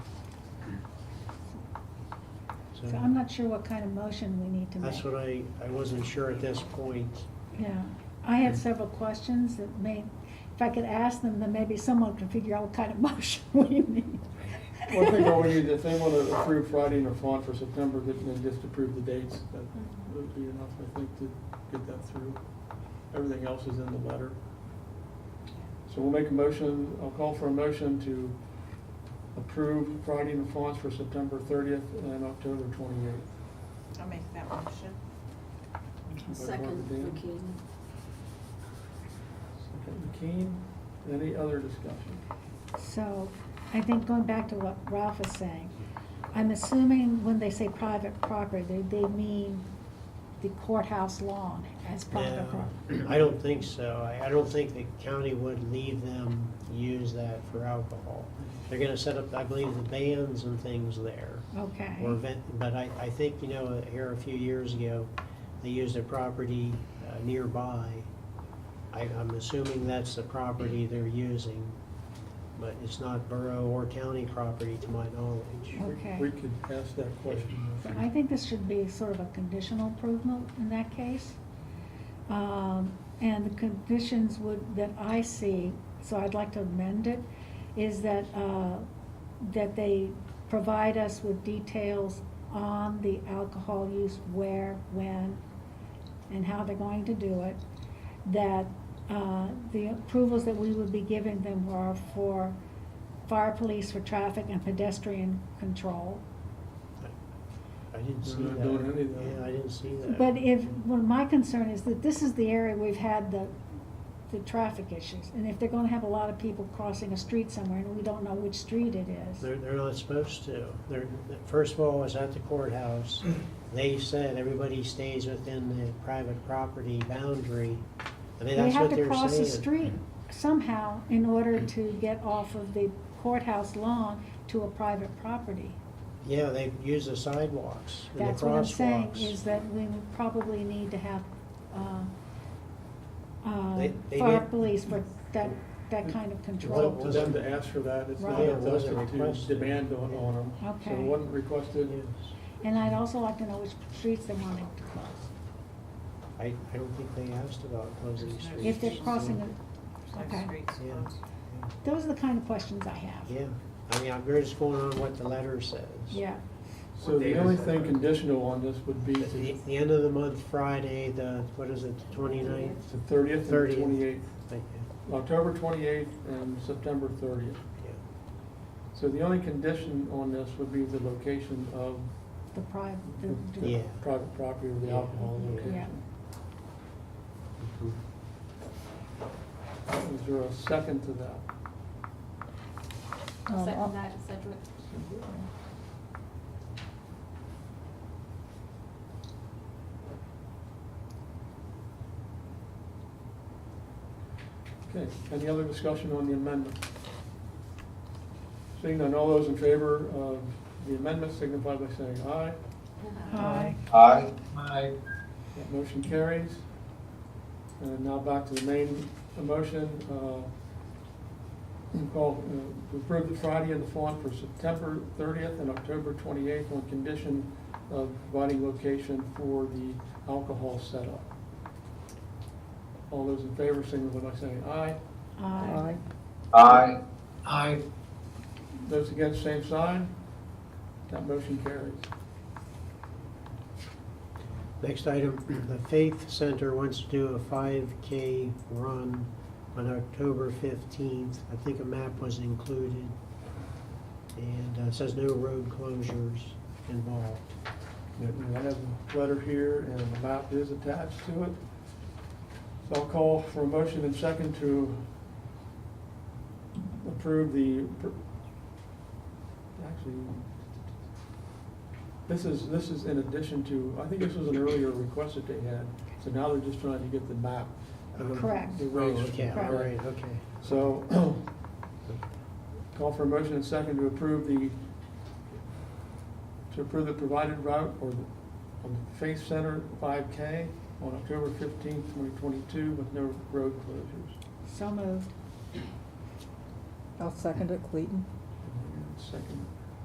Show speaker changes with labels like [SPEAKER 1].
[SPEAKER 1] So I'm not sure what kind of motion we need to make.
[SPEAKER 2] That's what I, I wasn't sure at this point.
[SPEAKER 1] Yeah, I had several questions that may, if I could ask them, then maybe someone could figure out what kind of motion we need.
[SPEAKER 3] Well, I think all we need, if they want to approve Friday in a font for September, then they just approve the dates. That would be enough, I think, to get that through. Everything else is in the letter. So we'll make a motion, I'll call for a motion to approve Friday in a font for September thirtieth and October twenty-eighth.
[SPEAKER 4] I'll make that motion.
[SPEAKER 5] Second, McKean.
[SPEAKER 3] Second, McKean. Any other discussion?
[SPEAKER 1] So I think going back to what Ralph was saying, I'm assuming when they say private property, they, they mean the courthouse lawn as private
[SPEAKER 2] Now,
[SPEAKER 1] property.
[SPEAKER 2] Um, I don't think so. I, I don't think the county would leave them use that for alcohol. They're gonna set up, I believe, the bands and things there.
[SPEAKER 1] Okay,
[SPEAKER 2] Or vent, but I, I think, you know, here a few years ago, they used a property uh, nearby. I, I'm assuming that's the property they're using, but it's not borough or county property to my knowledge.
[SPEAKER 3] We-
[SPEAKER 1] Okay.
[SPEAKER 3] We could ask that question.
[SPEAKER 1] So I think this should be sort of a conditional approval in that case. Um, And the conditions would, that I see, so I'd like to amend it, is that, uh, that they provide us with details on the alcohol use, where, when, and how they're going to do it. That uh, the approvals that we would be giving them were for fire police, for traffic and pedestrian control.
[SPEAKER 2] I didn't see
[SPEAKER 3] They're
[SPEAKER 2] that.
[SPEAKER 3] not doing any of that.
[SPEAKER 2] Yeah, I didn't see that.
[SPEAKER 1] But if, well, my concern is that this is the area we've had the, the traffic issues. And if they're gonna have a lot of people crossing a street somewhere and we don't know which street it is.
[SPEAKER 2] They're, they're not supposed to. They're, first of all, I was at the courthouse. They said everybody stays within the private property boundary. I mean,
[SPEAKER 1] They
[SPEAKER 2] that's
[SPEAKER 1] have
[SPEAKER 2] what
[SPEAKER 1] to
[SPEAKER 2] they're saying.
[SPEAKER 1] cross the street somehow in order to get off of the courthouse lawn to a private property.
[SPEAKER 2] Yeah, they use the sidewalks and the
[SPEAKER 1] That's what I'm saying,
[SPEAKER 2] crosswalks.
[SPEAKER 1] is that we probably need to have, uh, uh,
[SPEAKER 2] They- they
[SPEAKER 1] fire
[SPEAKER 2] need-
[SPEAKER 1] police for that, that kind of
[SPEAKER 3] It's
[SPEAKER 1] control.
[SPEAKER 3] up to them to ask for that, it's not
[SPEAKER 1] Right.
[SPEAKER 3] up to us
[SPEAKER 2] Yeah, it
[SPEAKER 3] to
[SPEAKER 2] wasn't
[SPEAKER 3] demand on, on them. So
[SPEAKER 1] Okay.
[SPEAKER 3] it wasn't requested,
[SPEAKER 2] Yes.
[SPEAKER 1] And I'd also like to know which streets they want it to cross.
[SPEAKER 2] I, I don't think they asked about closing
[SPEAKER 4] If
[SPEAKER 2] streets.
[SPEAKER 1] if they're crossing it.
[SPEAKER 4] There's no
[SPEAKER 1] Okay.
[SPEAKER 4] streets
[SPEAKER 2] Yeah.
[SPEAKER 4] closed.
[SPEAKER 1] Those are the kind of questions I have.
[SPEAKER 2] Yeah, I mean, I'm just going on what the letter says.
[SPEAKER 1] Yeah,
[SPEAKER 3] so the only thing conditional on this would be
[SPEAKER 2] The, the-
[SPEAKER 3] to
[SPEAKER 2] the end of the month, Friday, the, what is it, the twenty-ninth?
[SPEAKER 3] the thirtieth and
[SPEAKER 2] 30th.
[SPEAKER 3] twenty-eighth,
[SPEAKER 2] Yeah,
[SPEAKER 3] October twenty-eighth and September thirtieth. So the only condition on this would be the location of
[SPEAKER 1] the private,
[SPEAKER 3] the-
[SPEAKER 1] the,
[SPEAKER 3] the
[SPEAKER 2] Yeah.
[SPEAKER 3] private property or the
[SPEAKER 2] Yeah.
[SPEAKER 3] alcohol
[SPEAKER 2] Yeah.
[SPEAKER 3] location.
[SPEAKER 2] Mhm.
[SPEAKER 3] Is there a second to that?
[SPEAKER 1] um,
[SPEAKER 6] Second that, Sedgwick.
[SPEAKER 3] Okay, any other discussion on the amendment? Seeing none, all those in favor of the amendment signify by saying aye.
[SPEAKER 1] Aye.
[SPEAKER 7] Aye.
[SPEAKER 3] That motion carries. And now back to the main motion, uh, call, uh, to approve the Friday and the font for September thirtieth and October twenty-eighth on condition of providing location for the alcohol setup. All those in favor signify by saying aye.
[SPEAKER 1] Aye.
[SPEAKER 7] Aye.
[SPEAKER 3] Those against, same sign. That motion carries.
[SPEAKER 2] Next item, the Faith Center wants to do a five K run on October fifteenth. I think a map was included. And uh, it says no road closures involved.
[SPEAKER 3] And I have a letter here, and the map is attached to it. So I'll call for a motion and second to approve the, actually, this is, this is in addition to, I think this was an earlier request that they had, so now they're just trying to get the map. um,
[SPEAKER 1] Correct.
[SPEAKER 3] the
[SPEAKER 2] Oh,
[SPEAKER 3] race.
[SPEAKER 2] okay, all right, okay.
[SPEAKER 3] So, call for a motion and second to approve the, to approve the provided route or the, on the Faith Center five K on October fifteenth, twenty twenty-two with no road closures.
[SPEAKER 1] So moved.
[SPEAKER 8] I'll second it, Clayton.
[SPEAKER 3] Second,